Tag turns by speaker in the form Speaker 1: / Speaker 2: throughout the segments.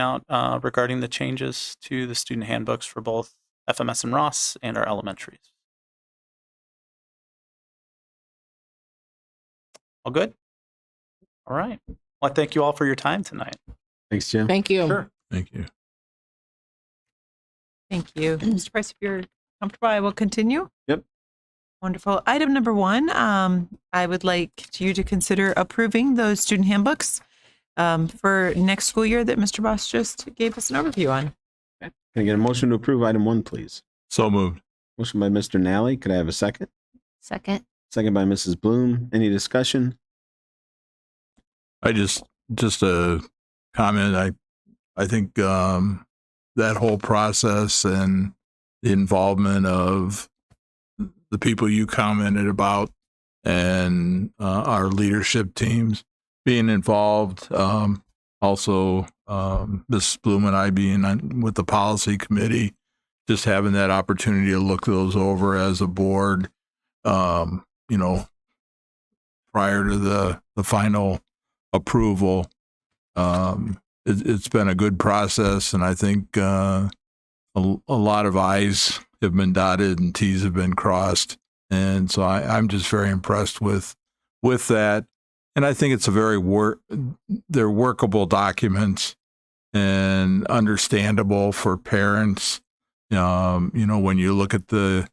Speaker 1: out uh, regarding the changes to the student handbooks for both FMS and Ross and our elementaries. All good? All right. Well, I thank you all for your time tonight.
Speaker 2: Thanks, Jim.
Speaker 3: Thank you.
Speaker 4: Thank you.
Speaker 5: Thank you. Mr. Price, if you're comfortable, I will continue.
Speaker 2: Yep.
Speaker 5: Wonderful. Item number one, um, I would like you to consider approving those student handbooks um, for next school year that Mr. Boss just gave us an overview on.
Speaker 2: Can I get a motion to approve item one, please?
Speaker 4: So moved.
Speaker 2: Motion by Mr. Nally. Could I have a second?
Speaker 3: Second.
Speaker 2: Second by Mrs. Bloom. Any discussion?
Speaker 4: I just just a comment. I I think um, that whole process and the involvement of the people you commented about and uh, our leadership teams being involved. Um, also, um, Mrs. Bloom and I being on, with the policy committee, just having that opportunity to look those over as a board. Um, you know, prior to the the final approval. Um, it, it's been a good process, and I think uh, a, a lot of I's have been dotted and T's have been crossed, and so I, I'm just very impressed with with that. And I think it's a very work they're workable documents and understandable for parents. Um, you know, when you look at the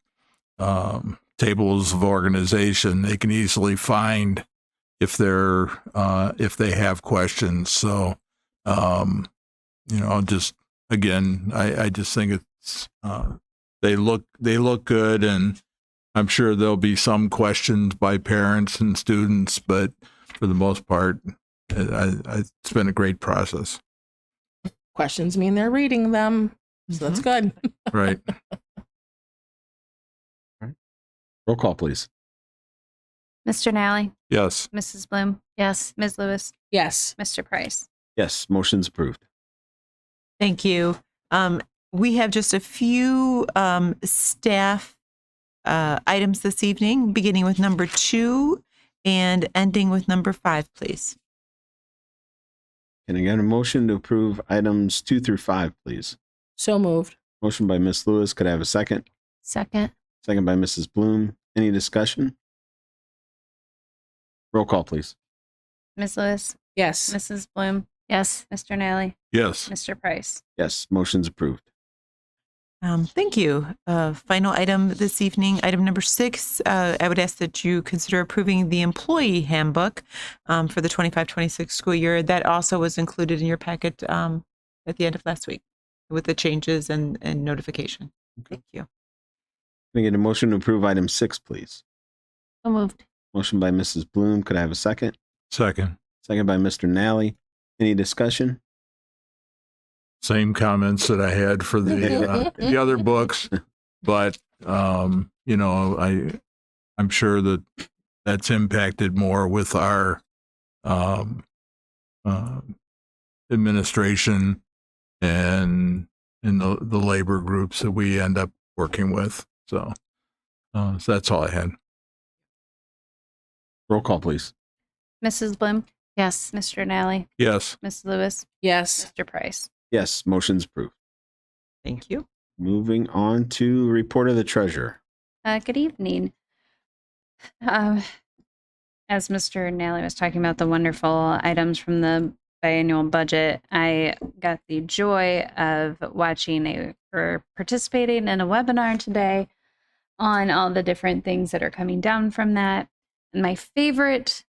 Speaker 4: um, tables of organization, they can easily find if they're uh, if they have questions. So, um, you know, I'll just again, I, I just think it's uh, they look they look good, and I'm sure there'll be some questions by parents and students, but for the most part, I, I, it's been a great process.
Speaker 3: Questions mean they're reading them. So that's good.
Speaker 4: Right.
Speaker 2: Roll call, please.
Speaker 6: Mr. Nally,
Speaker 4: yes.
Speaker 6: Mrs. Bloom,
Speaker 3: Yes.
Speaker 6: Ms. Lewis,
Speaker 3: Yes.
Speaker 6: Mr. Price.
Speaker 2: Yes, motion's approved.
Speaker 5: Thank you. Um, we have just a few um, staff uh, items this evening, beginning with number two and ending with number five, please.
Speaker 2: Can I get a motion to approve items two through five, please?
Speaker 3: So moved.
Speaker 2: Motion by Ms. Lewis. Could I have a second?
Speaker 3: Second.
Speaker 2: Second by Mrs. Bloom. Any discussion? Roll call, please.
Speaker 6: Ms. Lewis,
Speaker 3: Yes.
Speaker 6: Mrs. Bloom,
Speaker 3: Yes.
Speaker 6: Mr. Nally,
Speaker 4: Yes.
Speaker 6: Mr. Price.
Speaker 2: Yes, motion's approved.
Speaker 5: Um, thank you. Uh, final item this evening, item number six. Uh, I would ask that you consider approving the employee handbook um, for the 25 26 school year. That also was included in your packet um, at the end of last week with the changes and, and notification. Thank you.
Speaker 2: Can I get a motion to approve item six, please?
Speaker 3: So moved.
Speaker 2: Motion by Mrs. Bloom. Could I have a second?
Speaker 4: Second.
Speaker 2: Second by Mr. Nally. Any discussion?
Speaker 4: Same comments that I had for the uh, the other books, but um, you know, I I'm sure that that's impacted more with our um, uh, administration and in the the labor groups that we end up working with. So, uh, so that's all I had.
Speaker 2: Roll call, please.
Speaker 6: Mrs. Bloom,
Speaker 3: Yes.
Speaker 6: Mr. Nally,
Speaker 4: Yes,
Speaker 6: Ms. Lewis,
Speaker 3: Yes.
Speaker 6: Mr. Price.
Speaker 2: Yes, motion's approved.
Speaker 5: Thank you.
Speaker 2: Moving on to report of the treasurer.
Speaker 6: Uh, good evening. Um, as Mr. Nally was talking about the wonderful items from the biannual budget, I got the joy of watching a, or participating in a webinar today on all the different things that are coming down from that. And my favorite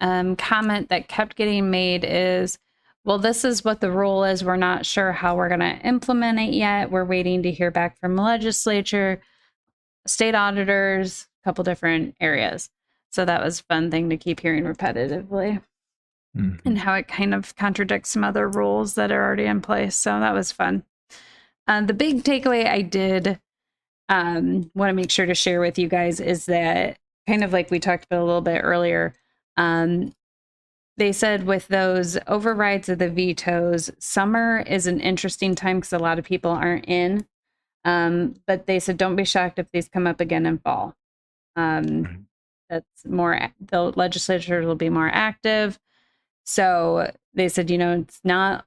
Speaker 6: um, comment that kept getting made is, well, this is what the rule is. We're not sure how we're going to implement it yet. We're waiting to hear back from the legislature state auditors, a couple different areas. So that was a fun thing to keep hearing repetitively
Speaker 4: Mhm.
Speaker 6: and how it kind of contradicts some other rules that are already in place. So that was fun. Uh, the big takeaway I did um, want to make sure to share with you guys is that kind of like we talked about a little bit earlier, um, they said with those overrides of the vetoes, summer is an interesting time because a lot of people aren't in. Um, but they said don't be shocked if these come up again in fall.
Speaker 4: Right.
Speaker 6: Um, that's more, the legislatures will be more active. So they said, you know, it's not